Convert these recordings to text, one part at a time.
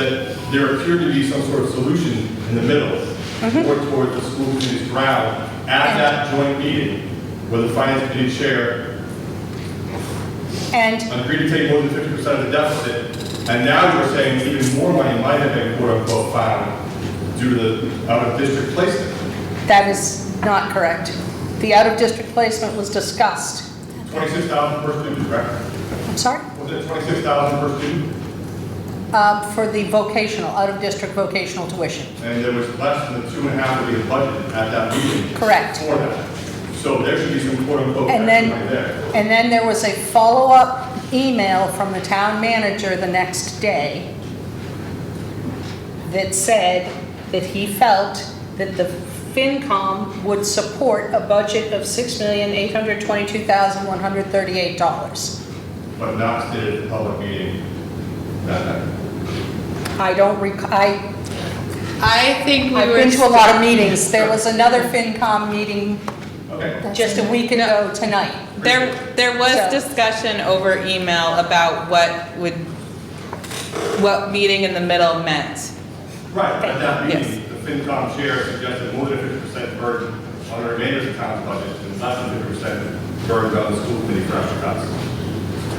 that there appeared to be some sort of solution in the middle, Mm-hmm. more toward the school committee's ground at that joint meeting where the finance committee chair And agreed to take more than fifty percent of the deficit. And now you're saying even more money might have been quote unquote found due to the out of district placement. that is not correct. The out-of-district placement was discussed. Twenty-six thousand per student, correct? I'm sorry? Was it twenty-six thousand per student? Uh, For the vocational, out-of-district vocational tuition. And there was less than the two and a half of the budget at that meeting. Correct. For that. So there should be some quote unquote And action then, right there. and then there was a follow-up email from the town manager the next day that said that he felt that the FinCom would support a budget of $6,822,138. but not stated at the public meeting that night. I don't rec, I I think we were. I've been to a lot of meetings. There was another FinCom meeting Okay. just a week ago tonight. There, there So- was discussion over email about what would, what meeting in the middle meant. Right, at that Yes. meeting, the FinCom chair suggested more than fifty percent burden on the remainder of the town's budget and less than fifty percent burden on the school committee for extra cuts.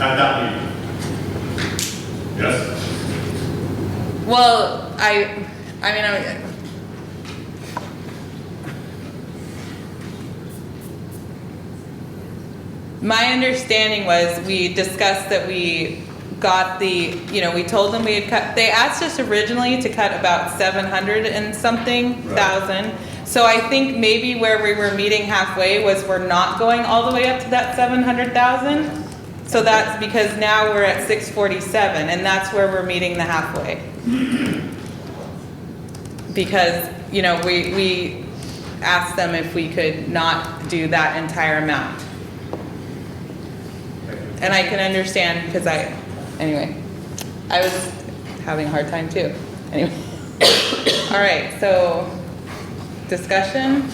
At that meeting. Yes? Well, I, I mean, I. My understanding was we discussed that we got the, you know, we told them we had cut, they asked us originally to cut about seven hundred and something Right. thousand. So I think maybe where we were meeting halfway was we're not going all the way up to that seven hundred thousand. So that's because now we're at six forty-seven and that's where we're meeting the halfway because, you know, we, we asked them if we could not do that entire amount. And I can understand because I, anyway, I was having a hard time too. Anyway. All right, so discussion?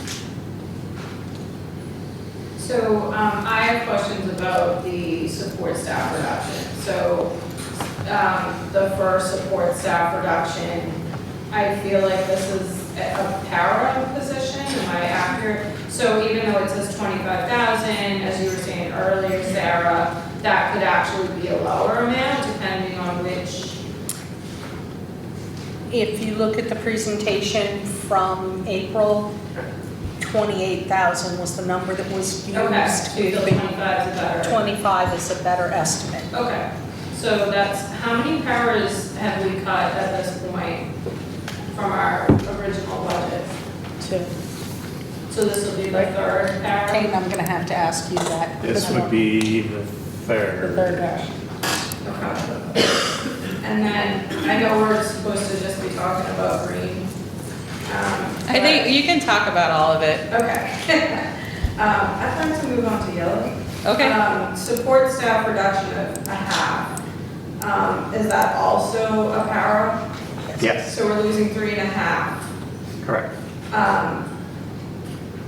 So um, I have questions about the support staff reduction. So um, the first support staff reduction, I feel like this is a a para position, am I accurate? So even though it says twenty-five thousand, as you were saying earlier, Sarah, that could actually be a lower amount depending on which, If you look at the presentation from April, 28,000 was the number that was okay, so you used. feel twenty-five is a better. 25 is a better estimate. Okay, so that's, how many powers have we cut at this point from our original budget? to- So this will be the third power? Kate, I'm going to have to ask you that. This would be the The third. third one. Okay. And then, I know we're supposed to just be talking about green. um, I think you can talk about all of it. but- Okay. Um, I'd like to move on to yellow. Okay. Um, Support staff reduction of a half. Um, Is that also a power? Yes, So we're losing three and a half. correct. Um,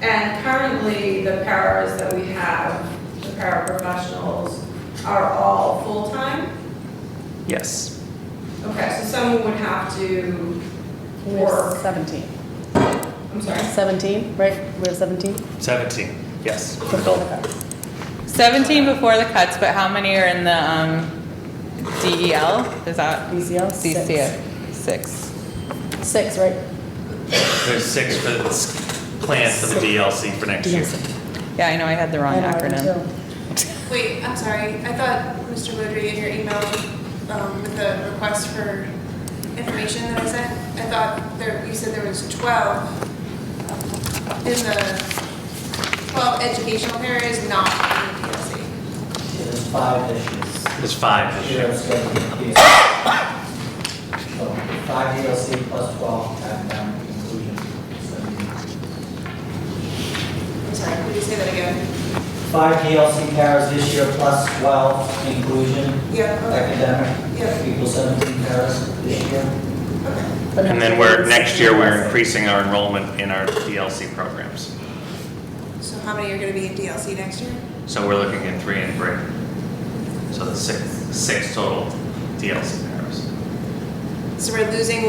And currently, the paras that we have, the paraprofessionals, are all full-time? Yes, Okay, so someone would have to We're work, 17. I'm sorry. 17, right? We're 17? 17, yes. Before the cuts. Seventeen before the cuts, but how many are in the, um, DEL? Is that? BCL? Six. DCF, six. Six, right? There's six for this plan for the DLC for next year. Yeah, I know I had the wrong I know, I acronym. do. Wait, I'm sorry. I thought, Mr. Woodry, in your email um, with the request for information that I sent, I thought there, you said there was 12 in the, 12 educational areas not in the PLC. There's five issues. There's five this Here year. it's going to be. So five DLC plus twelve, and um, inclusion. So, I'm sorry, could you say that again? Five DLC pairs this year plus twelve inclusion Yeah, academic. Yeah. Equals seventeen pairs this year. okay, okay. And then we're, next year, we're increasing our enrollment in our DLC programs. So how many are going to be in DLC next year? So we're looking at three and three. So the six, six total DLC pairs. So we're losing